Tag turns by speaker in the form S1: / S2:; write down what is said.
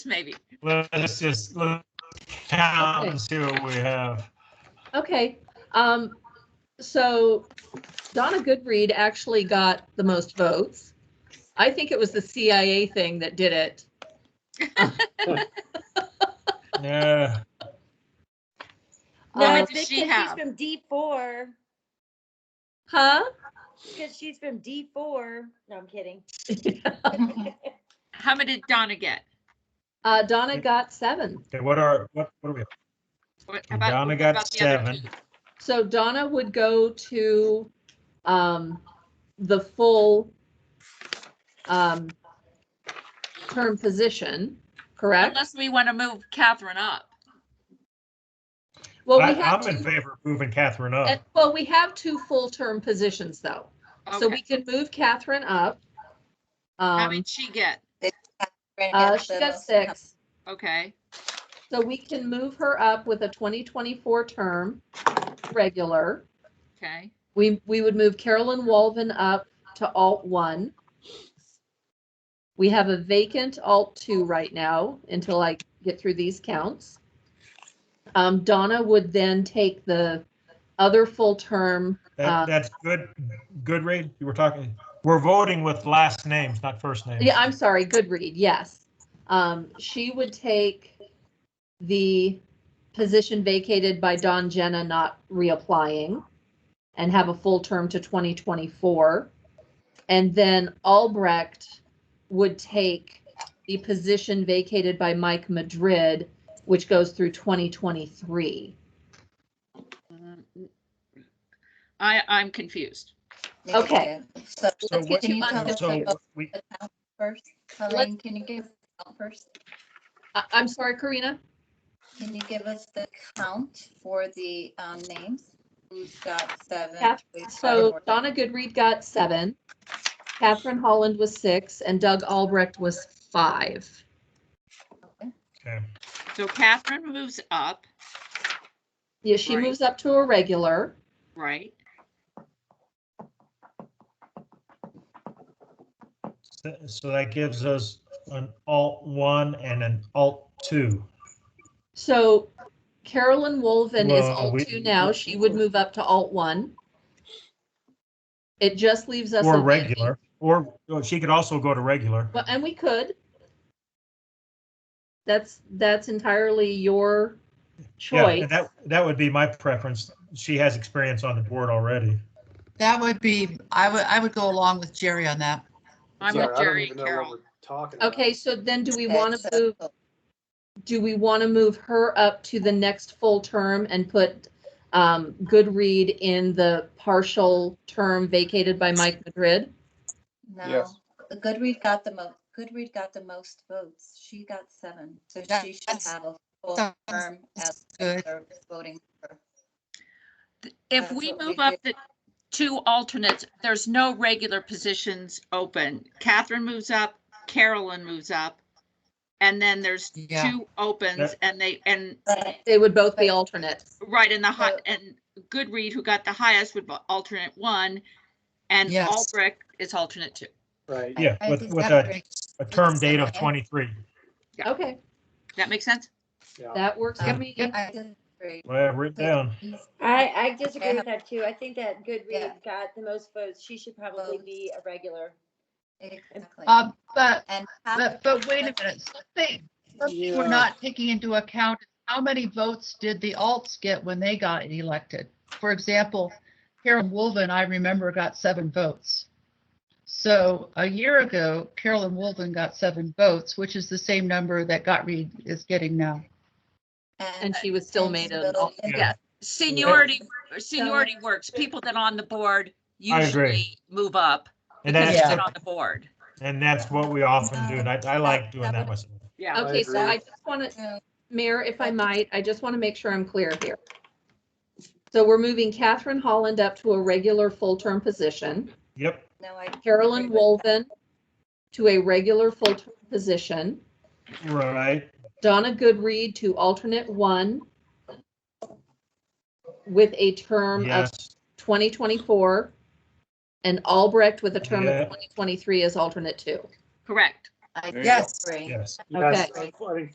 S1: maybe.
S2: Let's just, let's count and see what we have.
S3: Okay, um, so Donna Goodread actually got the most votes. I think it was the CIA thing that did it.
S2: Yeah,
S4: No,
S3: Uh,
S1: What
S4: it's
S1: did
S4: because
S1: she
S4: she's
S1: have?
S4: from D four,
S3: Huh?
S4: because she's from D four. No, I'm kidding.
S1: How many did Donna get?
S3: Uh, Donna got seven.
S2: okay, what are, what, what are we?
S1: What about-
S2: Donna
S1: what
S2: got
S1: about the other
S2: seven.
S1: two?
S3: So Donna would go to, um, the full, um, term position, correct?
S1: Unless we want to move Catherine up.
S3: Well,
S2: I-
S3: we have
S2: I'm in
S3: two,
S2: favor of moving Catherine up.
S3: well, we have two full-term positions though. So we
S1: Okay,
S3: can move Catherine up.
S1: how
S3: Um,
S1: many did she get?
S3: uh, she got six,
S1: Okay,
S3: so we can move her up with a 2024 term, regular.
S1: okay.
S3: We, we would move Carolyn Walvin up to alt one. We have a vacant alt two right now until I get through these counts. Um, Donna would then take the other full term. Uh,
S2: That, that's good, good read. You were talking, we're voting with last names, not first names.
S3: Yeah, I'm sorry, Goodread, yes. Um, she would take the position vacated by Don Jenna not reapplying and have a full term to 2024. And then Albrecht would take the position vacated by Mike Madrid, which goes through 2023.
S1: Mm, I, I'm confused.
S3: Okay.
S5: So
S2: So
S3: Let's get
S2: what-
S3: you
S5: Can
S3: on
S5: you
S3: this
S2: so
S3: thing.
S5: vote?
S2: we-
S5: the count first, Colleen, can you give count first?
S3: I- I'm sorry, Karina?
S5: Can you give us the count for the um, names? Who's got seven?
S3: Kath-
S5: who's got
S3: So
S5: four?
S3: Donna Goodread got seven, Catherine Holland was six, and Doug Albrecht was five.
S2: okay.
S1: So Catherine moves up,
S3: Yeah, she
S1: Right.
S3: moves up to a regular.
S1: right?
S2: So- So that gives us an alt one and an alt two.
S3: So Carolyn Wolven is
S2: Well,
S3: alt
S2: we-
S3: two now. She would move up to alt one. It just leaves us.
S2: Or
S3: a-
S2: regular, or or she could also go to regular.
S3: Well, and we could. That's, that's entirely your
S2: Yeah,
S3: choice.
S2: and that, that would be my preference. She has experience on the board already.
S6: That would be, I would, I would go along with Jerry on that.
S1: I'm
S7: Sorry,
S1: with
S7: I don't
S1: Jerry and
S7: even know what
S1: Carol.
S7: we're Talking about.
S3: Okay, so then do we
S5: Okay,
S3: want
S5: so-
S3: to move, do we want to move her up to the next full term and put um, Goodread in the partial term vacated by Mike Madrid?
S5: No,
S7: Yes.
S5: Goodread got the most, Goodread got the most votes. She got seven, so
S6: That-
S5: she should
S6: that's-
S5: have a full
S6: sounds
S5: term as
S6: Good.
S5: her voting. member.
S1: If
S5: That's
S1: we
S5: what we
S1: move up
S5: did.
S1: the two alternates, there's no regular positions open. Catherine moves up, Carolyn moves up. And then there's
S6: Yeah.
S1: two opens and they, and
S5: But
S3: They would both be alternates.
S1: Right, and the hot
S5: So-
S1: and Goodread, who got the highest, would be alternate one, and
S6: Yes.
S1: Albrecht is alternate two.
S7: Right.
S2: Yeah,
S5: I
S2: with,
S5: think
S2: with
S6: That
S2: a,
S6: makes-
S2: a term date of
S5: okay.
S2: 23.
S3: Okay,
S1: That make sense?
S7: Yeah.
S3: that works for
S5: Yep.
S3: me.
S5: Um, I disagree.
S2: Well, I've written down.
S4: I, I disagree
S5: Yeah.
S4: with that too. I think that
S5: Yeah.
S4: Goodread got the most votes. She should probably be a regular.
S5: Exactly.
S6: Uh, but,
S5: And
S6: but, but wait a minute, something, something we're
S7: Yeah.
S6: not taking into account, is how many votes did the alts get when they got elected? For example, Carolyn Wolven, I remember, got seven votes. So a year ago, Carolyn Wolven got seven votes, which is the same number that Gottlieb is getting now.
S3: And she was still
S5: and
S3: made
S5: still
S3: an alt.
S5: in
S2: Yeah.
S1: Seniority, seniority works. People that are on the board
S2: I agree.
S1: usually move up because
S2: And that's,
S1: they've
S6: Yeah.
S1: been on the board.
S2: and that's what we often do. And I, I like doing that myself.
S1: Yeah.
S3: Okay, so
S7: agree.
S3: I just want to,
S5: the-
S3: Mayor, if I might, I just want to make sure I'm clear here. So we're moving Catherine Holland up to a regular full-term position.
S2: Yep,
S5: No, I.
S3: Carolyn
S5: agree with
S3: Wolven to a regular full-term position,
S2: right.
S3: Donna Goodread to alternate one with a term of
S2: Yes,
S3: 2024, and Albrecht with a term
S2: Yeah.
S3: of 2023 as alternate two.
S1: Correct.
S8: I
S9: Yes.
S8: agree.
S10: Yes.
S5: Okay.
S7: Yes, I- I